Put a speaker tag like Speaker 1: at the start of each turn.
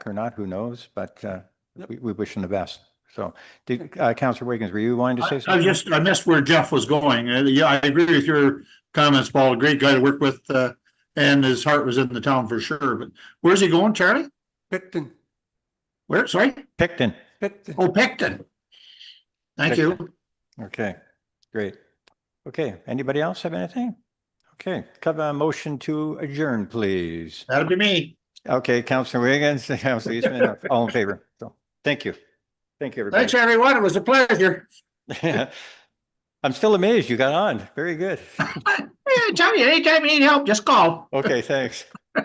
Speaker 1: or not, who knows, but uh,
Speaker 2: Yep.
Speaker 1: we we wish him the best. So, did, uh, Counselor Wiggins, were you wanting to say
Speaker 3: I I
Speaker 1: something?
Speaker 3: just, I missed where Jeff was going. Uh, Yeah, I agree with your comments, Paul. A Great guy to work with, uh, and his heart was in the town for sure. But where's he going, Charlie?
Speaker 2: Picton,
Speaker 3: Where, sorry?
Speaker 1: Picton,
Speaker 2: Picton.
Speaker 3: Oh, Picton. Thank you.
Speaker 1: okay, great. Okay, anybody else have anything? Okay, Could I have a motion to adjourn, please.
Speaker 3: That'll be me.
Speaker 1: Okay, Counselor Wiggins, Counselor Eastman, all in favor. So, thank you. Thank you, everybody.
Speaker 3: Thanks, everyone. It was a pleasure.
Speaker 1: I'm still amazed you got on. Very good.
Speaker 3: Yeah, Charlie, anytime you need help, just call.
Speaker 1: Okay, thanks.